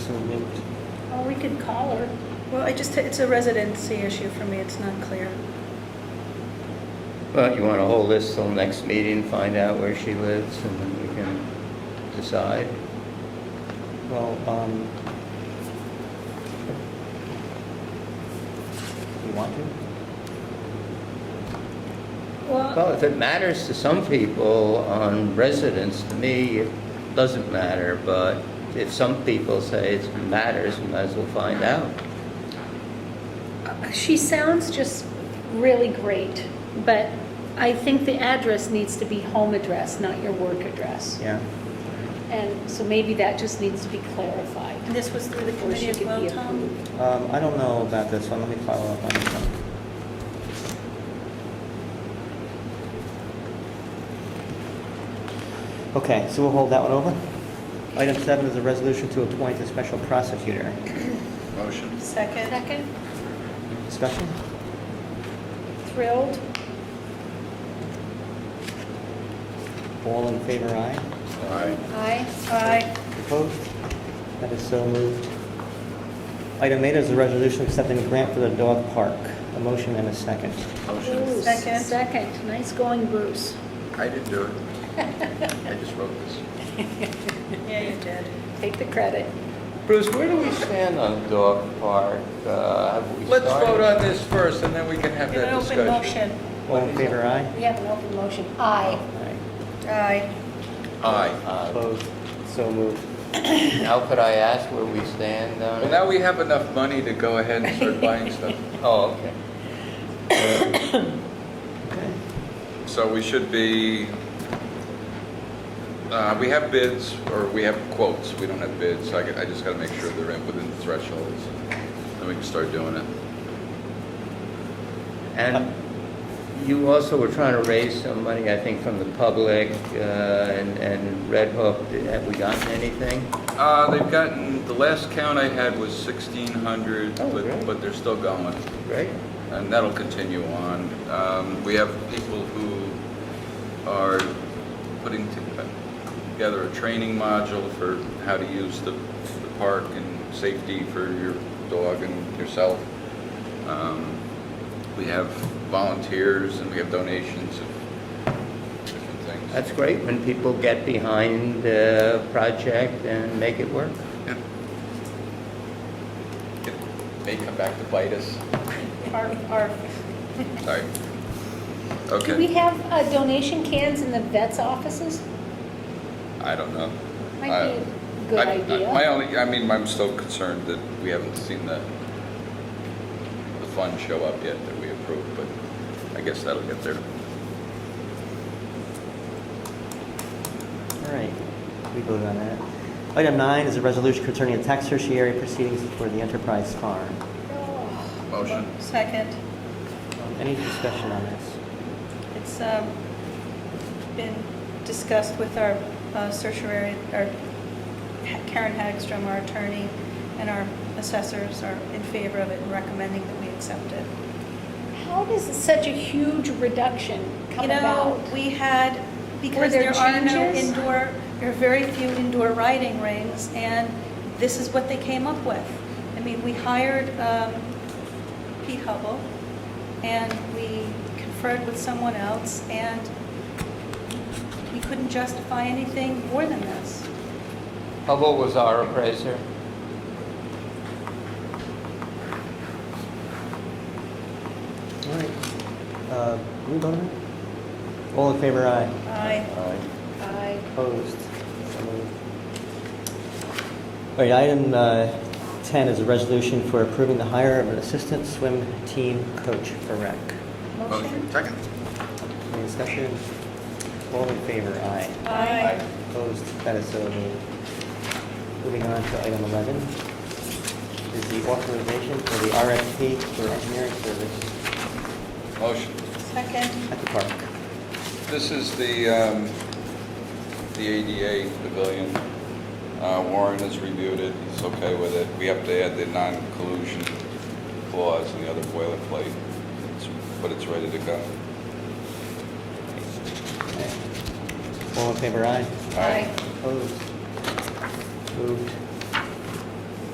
can call her. Well, I just, it's a residency issue for me, it's not clear. Well, you want to hold this till next meeting, find out where she lives, and then we can decide? Well, um... You want to? Uh, Well, if it matters to some people on residence, to me, it doesn't matter, but if some people say it matters, we might as well find out. Uh, She sounds just really great, but I think the address needs to be home address, not your work address. Yeah. And so maybe that just needs to be clarified. And this was through the Before committee she as could well, be Tom? approved. Um, I don't know about this one, let me follow up on this one. Okay, so we'll hold that one over. Item seven is a resolution to appoint a special prosecutor. Motion. Second? Second, Discussion? thrilled, All in favor, aye? Aye. aye. Aye. Opposed? That is so moved. Item eight is a resolution accepting a grant for the dog park. A motion and a second. Motion. Bruce, Second. Second, nice going, Bruce. I didn't do it. I just wrote this. Yeah, you did. Take the credit. Bruce, where do we stand on dog park? Uh, have we Let's started? vote on this first, and then we can have In an that open discussion. motion. All in favor, aye? We have an open motion, aye. Aye. Aye. Aye. Uh, Opposed? So moved. How could I ask where we stand on Well, it? now we have enough money to go ahead and start buying stuff. Oh, okay. Okay. So we should be, uh, we have bids, or we have quotes, we don't have bids, so I g- I just gotta make sure they're in within the thresholds, then we can start doing it. And you also were trying to raise some money, I think, from the public uh, and and Red Hook. Have we gotten anything? Uh, They've gotten, the last count I had was 1,600, Oh, great. but but they're still going. Great. and that'll continue on. Um, We have people who are putting to- together a training module for how to use the the park and safety for your dog and yourself. Um, We have volunteers and we have donations of different things. That's great when people get behind the project and make it work. Yeah. It May come back to bite us. Arf, arf. Sorry. Do we Okay, have uh, donation cans in the vets' offices? I don't know. Might be I- a good I- I- My idea. only, I mean, I'm still concerned that we haven't seen the, the fund show up yet that we approved, but I guess that'll get there. All right, we voted on that. Item nine is a resolution concerning the tax tertiary proceedings for the Enterprise Farm. Oh, Motion? Second. Any discussion on this? It's um, been discussed with our uh, certiorari, our Karen Hagstrom, our attorney, and our assessors are in favor of it and recommending that we accept it. How does such a huge reduction come You know, about? we had, Were because there there are no changes? indoor, there are very few indoor riding rings, and this is what they came up with. I mean, we hired um, Pete Hubble, and we conferred with someone else, and we couldn't justify anything more than this. Hubble was our appraiser. All right, uh, we voted on it? All in favor, aye? I, Uh, Aye. I Opposed? So moved. All right, item uh, 10 is a resolution for approving the hire of an assistant swim team coach for rec. Motion? Second. Any discussion? All in favor, aye? I, Opposed, that is so moved. Moving on to item 11, is the authorization for the RFP for engineering service Motion. second, at the park. This is the, um, the ADA pavilion. Uh, Warren has reviewed it, he's okay with it. We have to add the non-collusion clause and the other boilerplate, It's- but it's ready to go. All in favor, aye? Aye. Opposed? Moved.